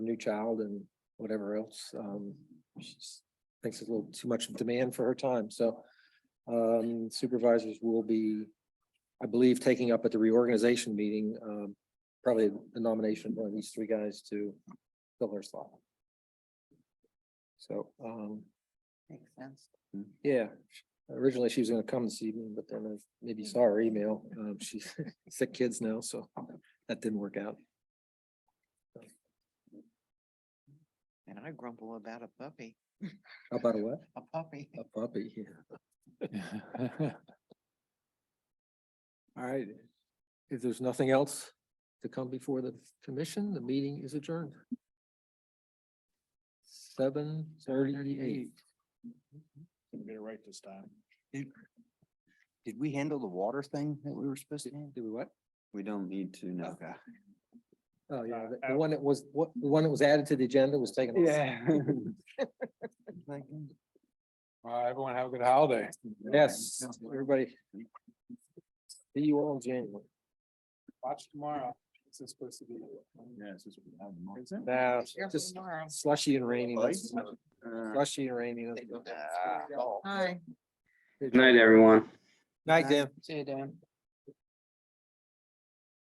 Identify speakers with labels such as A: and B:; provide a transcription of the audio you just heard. A: new child and whatever else. Um, she s- thinks it's a little too much demand for her time, so. Um, supervisors will be, I believe, taking up at the reorganization meeting, um, probably the nomination of one of these three guys to fill her slot. So, um,
B: Makes sense.
A: yeah, originally she was gonna come this evening, but then I maybe saw her email. Um, she's sick kids now, so that didn't work out.
B: And I grumble about a puppy,
A: How about a what?
B: a puppy.
A: A puppy here. All right, if there's nothing else to come before the commission, the meeting is adjourned. Seven thirty-eight.
C: Get it right this time.
D: Did we handle the water thing that we were supposed to? handle?
A: Do we what?
D: We don't need to know.
A: Oh, yeah,
C: Uh,
A: the- the one that was, what, the one that was added to the agenda was taken. off.
C: All right, everyone have a good holiday.
A: Yes, everybody. See you all in January.
C: Watch tomorrow. It's supposed to be. Yes.
A: Now,
B: Careful
A: just
B: tomorrow.
A: slushy and rainy, that's-
E: Uh,
D: Good
A: slushy and rainy. that's-
B: Hi.
E: Good night, everyone.
A: Night, Dan.
B: See you, Dan.